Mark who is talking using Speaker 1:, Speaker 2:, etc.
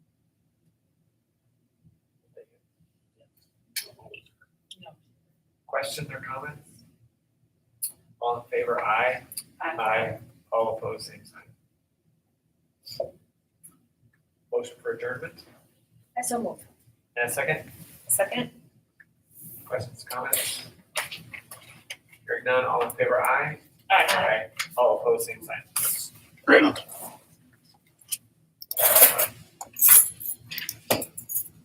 Speaker 1: questions or comments? All in favor, aye.
Speaker 2: Aye.
Speaker 1: All opposed, same sign. Motion for adjournment,
Speaker 3: I so move.
Speaker 1: and a second,
Speaker 2: Second?
Speaker 1: questions, comments? Hearing none, all in favor, aye.
Speaker 2: Aye.
Speaker 1: All opposed, same sign.
Speaker 4: Great.